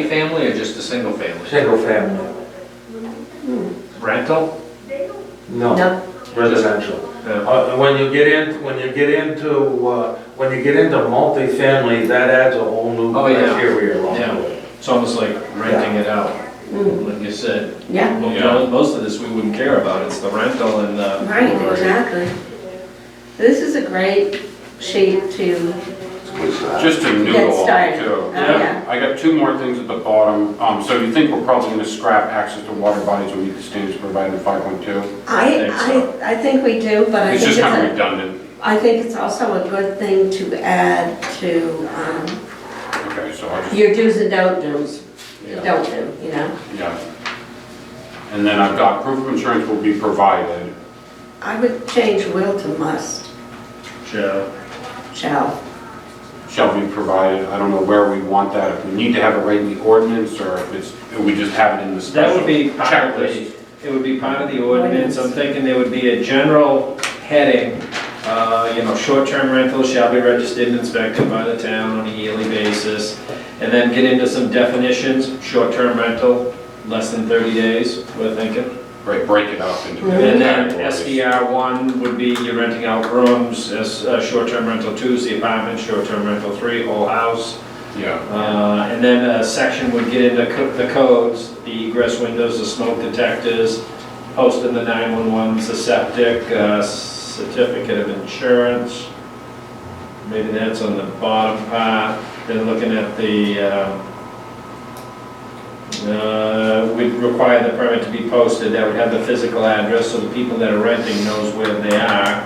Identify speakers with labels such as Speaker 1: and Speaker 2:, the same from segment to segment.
Speaker 1: Multi-family or just a single family?
Speaker 2: Single family,
Speaker 1: Rental?
Speaker 2: no,
Speaker 3: No,
Speaker 2: residential.
Speaker 1: Yeah.
Speaker 2: Uh, When you get in, when you get into, uh, when you get into multifamily, that adds a whole new
Speaker 1: Oh, yeah.
Speaker 2: criteria on
Speaker 1: Yeah.
Speaker 2: to it.
Speaker 1: It's almost like renting it out,
Speaker 3: Mm,
Speaker 1: like you said.
Speaker 3: yeah,
Speaker 1: Well, mo- Most of this we wouldn't care about, it's the rental and the.
Speaker 3: right, exactly. This is a great sheet to,
Speaker 4: Just to
Speaker 3: Get
Speaker 4: noodle on
Speaker 3: started.
Speaker 4: too.
Speaker 3: Oh, yeah.
Speaker 4: I got two more things at the bottom. Um, so you think we're probably gonna scrap access to water bodies will meet the standards provided in five point two?
Speaker 3: I,
Speaker 1: Think so.
Speaker 3: I, I think we do, but I
Speaker 4: It's
Speaker 3: think it's,
Speaker 4: just kind of
Speaker 3: a-
Speaker 4: redundant.
Speaker 3: I think it's also a good thing to add to, um,
Speaker 4: Okay, so I just,
Speaker 3: your do's and don't do's,
Speaker 4: yeah,
Speaker 3: don't do, you know?
Speaker 4: yeah. And then I've got proof of insurance will be provided.
Speaker 3: I would change will to must,
Speaker 1: Sure.
Speaker 3: shall.
Speaker 4: shall be provided. I don't know where we want that, if we need to have it right in the ordinance, or if it's, if we just have it in the
Speaker 1: That
Speaker 4: special
Speaker 1: would be part of
Speaker 4: checklist.
Speaker 1: the, it would be part of the ordinance, I'm thinking there would be a general heading, uh, you know, short-term rentals shall be registered and inspected by the town on a yearly basis, and then get into some definitions, short-term rental, less than 30 days, we're thinking.
Speaker 4: Right, break it up into.
Speaker 1: And then
Speaker 4: categories.
Speaker 1: SDR one would be you're renting out rooms, as uh, short-term rental two is the apartment, short-term rental three, whole house.
Speaker 4: Yeah,
Speaker 1: Uh, And then a section would get into co- the codes, the egress windows, the smoke detectors, posting the 911, the septic, uh, certificate of insurance. Maybe that's on the bottom part, then looking at the, um, uh, we'd require the permit to be posted, that would have the physical address, so the people that are renting knows where they are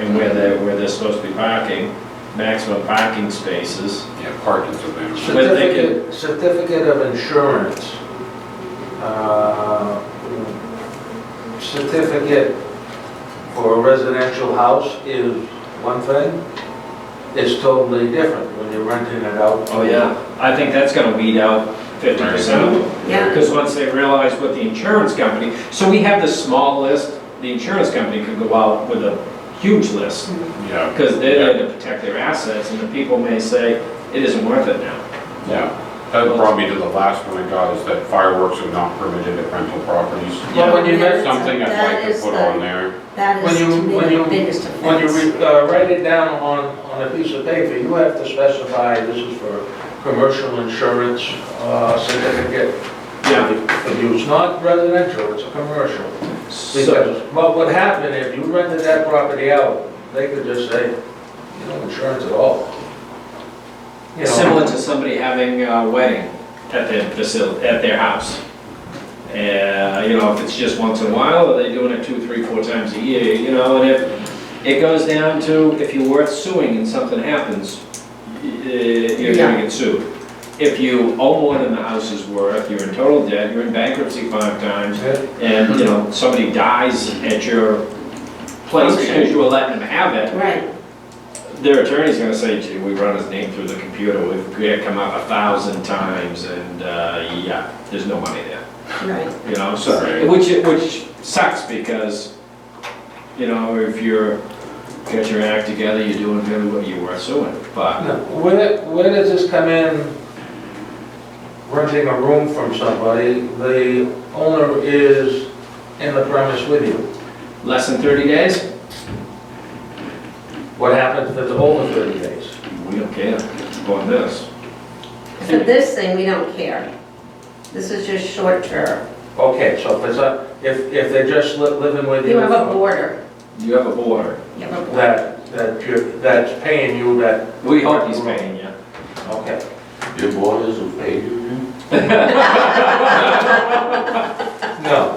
Speaker 1: and where they're, where they're supposed to be parking, maximum parking spaces.
Speaker 4: yeah, parking's available.
Speaker 1: But they can-
Speaker 2: Certificate, certificate of insurance. Uh, Certificate for a residential house is one thing, it's totally different when you're renting it out.
Speaker 1: Oh, yeah, I think that's gonna weed out fifty percent of them.
Speaker 3: Yeah.
Speaker 1: Because once they realize what the insurance company, so we have this small list, the insurance company could go out with a huge list,
Speaker 4: Yeah,
Speaker 1: because they're there to protect their assets, and the people may say, it isn't worth it now.
Speaker 4: yeah. That brought me to the last one I got, is that fireworks are not permitted at rental properties.
Speaker 2: But when you
Speaker 3: Yeah.
Speaker 2: rent,
Speaker 4: Something I'd
Speaker 3: That
Speaker 4: like to
Speaker 3: is
Speaker 4: put
Speaker 3: the-
Speaker 4: on there.
Speaker 3: That is
Speaker 2: When you-
Speaker 3: to me
Speaker 2: when
Speaker 3: the
Speaker 2: you-
Speaker 3: biggest
Speaker 2: When you
Speaker 3: offense.
Speaker 2: re- uh, write it down on, on a piece of paper, you have to specify this is for commercial insurance uh, certificate of use, not residential, it's a commercial.
Speaker 1: So,
Speaker 2: Because what would happen if you rented that property out, they could just say, you know, insurance at all. You know,
Speaker 1: similar to somebody having a wedding at their facility, at their house. And, you know, if it's just once in a while, or they're doing it two, three, four times a year, you know, and if, it goes down to, if you're worth suing and something happens, y- uh, you're gonna get sued. If you owe more than the house is worth, you're in total debt, you're in bankruptcy five times,
Speaker 2: Yeah.
Speaker 1: and, you know, somebody dies at your place because you were letting them have it,
Speaker 3: Right,
Speaker 1: their attorney's gonna say, gee, we run his name through the computer, we've, we had come up a thousand times, and, uh, yeah, there's no money there,
Speaker 3: right.
Speaker 1: you know, so,
Speaker 4: Right.
Speaker 1: which, which sucks, because, you know, if you're, get your act together, you're doing really what you were suing, but,
Speaker 2: Now, Where, where does this come in, renting a room from somebody, the owner is in the premise with you?
Speaker 1: less than thirty days,
Speaker 2: What happens if it's over 30 days?
Speaker 1: we don't care, on this.
Speaker 3: For this thing, we don't care. This is just short term.
Speaker 2: Okay, so if it's a, if, if they're just li- living with you.
Speaker 3: You have a
Speaker 2: for-
Speaker 3: border.
Speaker 1: You have a border,
Speaker 3: You have a border.
Speaker 2: That, that you, that's paying you that,
Speaker 1: we hope he's paying you.
Speaker 2: okay.
Speaker 5: Your borders are paved?
Speaker 2: No,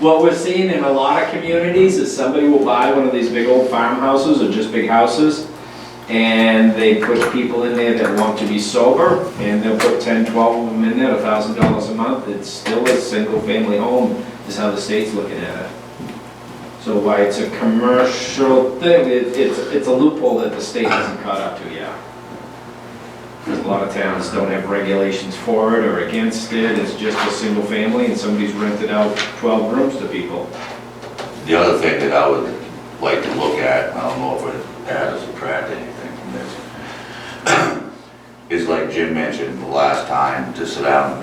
Speaker 1: What we're seeing in a lot of communities is somebody will buy one of these big old farmhouses or just big houses, and they put people in there that want to be sober, and they'll put 10, 12 of them in there, $1,000 a month. It's still a single-family home, is how the state's looking at it. So why it's a commercial thing, it- it's, it's a loophole that the state hasn't caught up to yet. 'Cause a lot of towns don't have regulations for it or against it, it's just a single family, and somebody's rented out 12 rooms to people.
Speaker 5: The other thing that I would like to look at, I don't know if it adds or subtract anything from this, is like Jim mentioned the last time, to sit down and